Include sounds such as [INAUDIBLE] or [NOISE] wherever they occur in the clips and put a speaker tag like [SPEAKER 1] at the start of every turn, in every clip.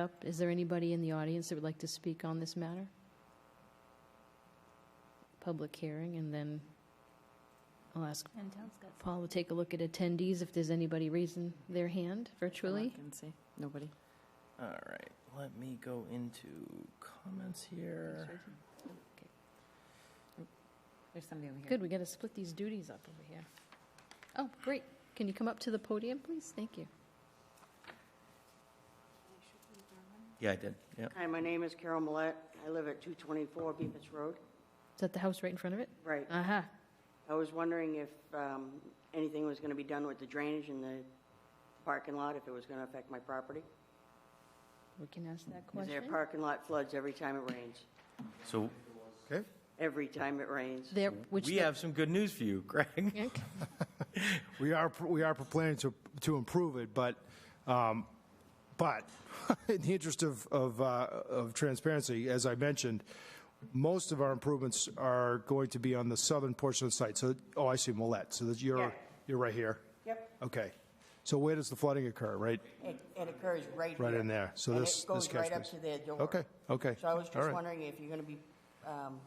[SPEAKER 1] Up. Is there anybody in the audience that would like to speak on this matter? Public hearing, and then I'll ask
[SPEAKER 2] And town's got
[SPEAKER 1] Paul to take a look at attendees if there's anybody raising their hand virtually.
[SPEAKER 3] can see. Nobody.
[SPEAKER 4] All right, let me go into comments here.
[SPEAKER 3] There's somebody over here.
[SPEAKER 1] Good, we got to split these duties up over here. Oh, great. Can you come up to the podium, please? Thank you.
[SPEAKER 4] Yeah, I did, yeah.
[SPEAKER 5] Hi, my name is Carol Millette. I live at 224 Bemis Road.
[SPEAKER 1] Is that the house right in front of it?
[SPEAKER 5] Right.
[SPEAKER 1] Aha.
[SPEAKER 5] I was wondering if um, anything was going to be done with the drainage in the parking lot, if it was going to affect my property.
[SPEAKER 1] We can ask that
[SPEAKER 5] 'Cause their
[SPEAKER 1] question.
[SPEAKER 5] parking lot floods every time it rains.
[SPEAKER 4] So
[SPEAKER 6] Okay,
[SPEAKER 5] Every time it rains.
[SPEAKER 1] There, which.
[SPEAKER 4] we
[SPEAKER 1] the-
[SPEAKER 4] have some good news for you, [LAUGHS] Greg.
[SPEAKER 1] Okay.
[SPEAKER 6] we are, we are planning to, to improve it, but, um, but [LAUGHS] in the interest of, of, uh, of transparency, as I mentioned, most of our improvements are going to be on the southern portion of the site. So, oh, I see Millette, so that you're,
[SPEAKER 5] Yeah.
[SPEAKER 6] you're right here?
[SPEAKER 5] Yep.
[SPEAKER 6] Okay. So where does the flooding occur, right?
[SPEAKER 5] It occurs right
[SPEAKER 6] Right in there. So
[SPEAKER 5] And
[SPEAKER 6] this-
[SPEAKER 5] it
[SPEAKER 6] this
[SPEAKER 5] goes right
[SPEAKER 6] catch
[SPEAKER 5] up
[SPEAKER 6] basin.
[SPEAKER 5] to their door.
[SPEAKER 6] Okay, okay.
[SPEAKER 5] So I was
[SPEAKER 6] All
[SPEAKER 5] just
[SPEAKER 6] right.
[SPEAKER 5] wondering if you're going to be um,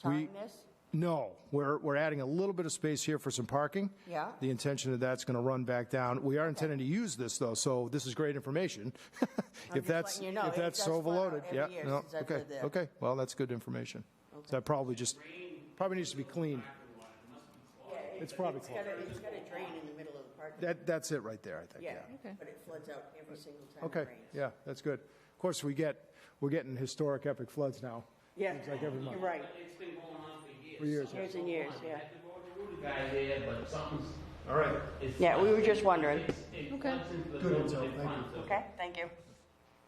[SPEAKER 5] tying this?
[SPEAKER 6] No, we're, we're adding a little bit of space here for some parking.
[SPEAKER 5] Yeah.
[SPEAKER 6] The intention of that's going to run back down. We are intending to use this, though, so this is great information. [LAUGHS] If that's,
[SPEAKER 5] letting you know,
[SPEAKER 6] if
[SPEAKER 5] it
[SPEAKER 6] that's
[SPEAKER 5] does run out
[SPEAKER 6] overloaded,
[SPEAKER 5] every
[SPEAKER 6] yeah,
[SPEAKER 5] year
[SPEAKER 6] no,
[SPEAKER 5] since I've
[SPEAKER 6] okay,
[SPEAKER 5] lived there.
[SPEAKER 6] okay, well, that's good information. So that probably just, probably needs to be cleaned. It's probably
[SPEAKER 5] It's got
[SPEAKER 6] clean.
[SPEAKER 5] to drain in the middle of the parking lot.
[SPEAKER 6] That, that's it right there, I think, yeah.
[SPEAKER 1] Okay.
[SPEAKER 5] But it floods out every single time it
[SPEAKER 6] Okay,
[SPEAKER 5] rains.
[SPEAKER 6] yeah, that's good. Of course, we get, we're getting historic epic floods now.
[SPEAKER 5] Yeah.
[SPEAKER 6] Seems like every month.
[SPEAKER 5] You're right.
[SPEAKER 6] For years.
[SPEAKER 5] Years and years, yeah.
[SPEAKER 7] guy there, but something's.
[SPEAKER 6] All right.
[SPEAKER 5] Yeah, we were just wondering.
[SPEAKER 1] Okay.
[SPEAKER 6] Good intel, thank you.
[SPEAKER 5] Okay, thank you.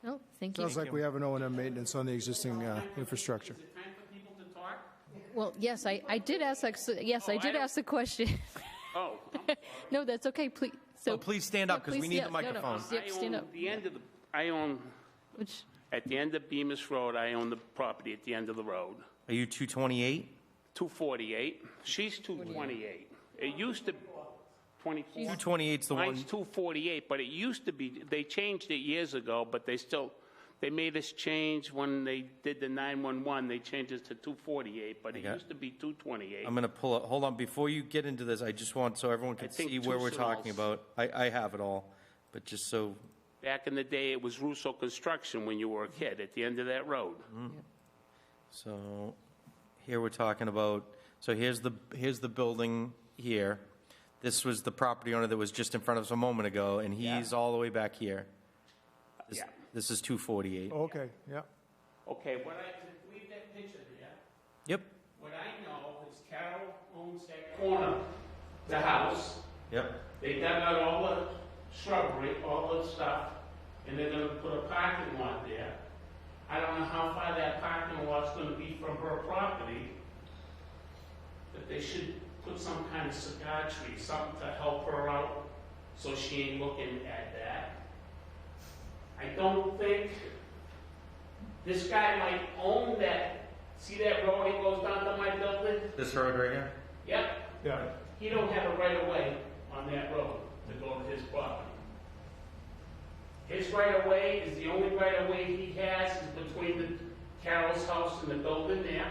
[SPEAKER 1] No, Oh, thank you.
[SPEAKER 6] Sounds like we have an O and M maintenance on the existing uh, infrastructure.
[SPEAKER 7] Is it time for people to talk?
[SPEAKER 1] Well, yes, I, I did ask, that- so- yes, I
[SPEAKER 7] Oh, I
[SPEAKER 1] did
[SPEAKER 7] don't-
[SPEAKER 1] ask the question.
[SPEAKER 7] Oh.
[SPEAKER 1] [LAUGHS] No, that's okay, please. So
[SPEAKER 4] Oh, please stand up,
[SPEAKER 1] Yeah,
[SPEAKER 4] 'cause we
[SPEAKER 1] please-
[SPEAKER 4] need
[SPEAKER 1] yeah,
[SPEAKER 4] the
[SPEAKER 1] no, no,
[SPEAKER 4] microphone.
[SPEAKER 1] yep, stand
[SPEAKER 7] I
[SPEAKER 1] up.
[SPEAKER 7] own the end of the, I own,
[SPEAKER 1] Which,
[SPEAKER 7] at the end of Bemis Road, I own the property at the end of the road,
[SPEAKER 4] Are you 228?
[SPEAKER 7] 248. She's 228. It used to, 24.
[SPEAKER 4] 228's the
[SPEAKER 7] Mine's
[SPEAKER 4] one,
[SPEAKER 7] 248, but it used to be, they changed it years ago, but they still, they made us change when they did the 911, they changed it to 248, but it
[SPEAKER 4] Okay.
[SPEAKER 7] used to be 228.
[SPEAKER 4] I'm going to pull up, hold on, before you get into this, I just want, so everyone can
[SPEAKER 7] think
[SPEAKER 4] see where
[SPEAKER 7] two
[SPEAKER 4] we're talking
[SPEAKER 7] smalls.
[SPEAKER 4] about. I, I have it all, but just so,
[SPEAKER 7] Back in the day, it was Russo Construction when you were a kid, at the end of that road.
[SPEAKER 4] Mm. so here we're talking about, so here's the, here's the building here. This was the property owner that was just in front of us a moment ago, and he's all the way back here. This-
[SPEAKER 7] Yeah. Oh.
[SPEAKER 4] This is 248.
[SPEAKER 6] Okay, yeah.
[SPEAKER 7] Okay, what I, leave that picture there.
[SPEAKER 4] Yep,
[SPEAKER 7] What I know is Carol owns that corner, the house.
[SPEAKER 4] yep.
[SPEAKER 7] They dug out all the shrubbery, all the stuff, and they're gonna put a parking lot there. I don't know how far that parking lot's gonna be from her property, but they should put some kind of cigar tree, something to help her out, so she ain't looking at that. I don't think, this guy might own that, see that road that goes down to my building?
[SPEAKER 4] This road right here?
[SPEAKER 7] Yep,
[SPEAKER 6] Yeah,
[SPEAKER 7] he don't have a right of way on that road to go to his property. His right of way is the only right of way he has is between the Carol's house and the building there.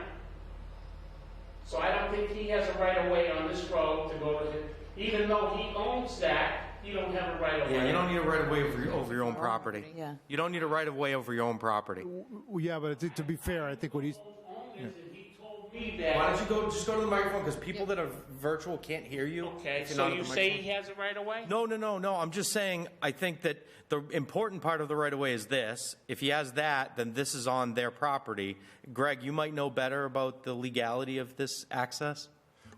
[SPEAKER 7] So I don't think he has a right of way on this road to go to his, even though he owns that, he don't have a right of way.
[SPEAKER 4] Yeah, you don't need a right of way over, your- over your own property.
[SPEAKER 3] Yeah.
[SPEAKER 4] You don't need a right of way over your own property.
[SPEAKER 6] Well, yeah, but I think to be fair, I think what he's,
[SPEAKER 7] Owners, and he told me
[SPEAKER 4] Why
[SPEAKER 7] that.
[SPEAKER 4] don't you go, just go to the microphone, because people that are virtual can't hear you.
[SPEAKER 7] Okay,
[SPEAKER 4] if you're
[SPEAKER 7] so
[SPEAKER 4] not at
[SPEAKER 7] you
[SPEAKER 4] the
[SPEAKER 7] say
[SPEAKER 4] microphone.
[SPEAKER 7] he has a right of way?
[SPEAKER 4] No, no, no, no, I'm just saying, I think that the important part of the right of way is this. If he has that, then this is on their property. Greg, you might know better about the legality of this access?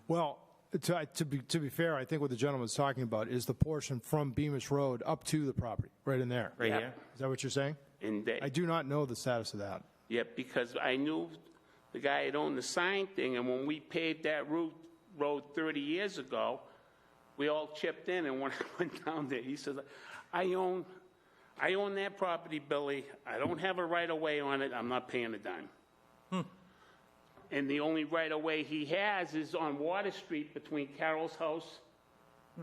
[SPEAKER 6] well, to, to be, to be fair, I think what the gentleman's talking about is the portion from Bemis Road up to the property, right in there.
[SPEAKER 4] Right
[SPEAKER 7] Yeah.
[SPEAKER 4] here?
[SPEAKER 6] Is that what you're saying?
[SPEAKER 7] And they-
[SPEAKER 6] I do not know the status of that.
[SPEAKER 7] Yeah, because I knew the guy that owned the sign thing, and when we paved that route, road 30 years ago, we all chipped in, and when [LAUGHS] I went down there, he says, I own, I own that property, Billy, I don't have a right-of-way on it, I'm not paying a dime. And the only right-of-way he has is on Water Street between Carol's house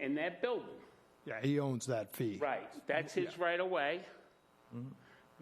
[SPEAKER 7] and that building.
[SPEAKER 6] Yeah, he owns that fee.
[SPEAKER 7] Right, that's his right-of-way.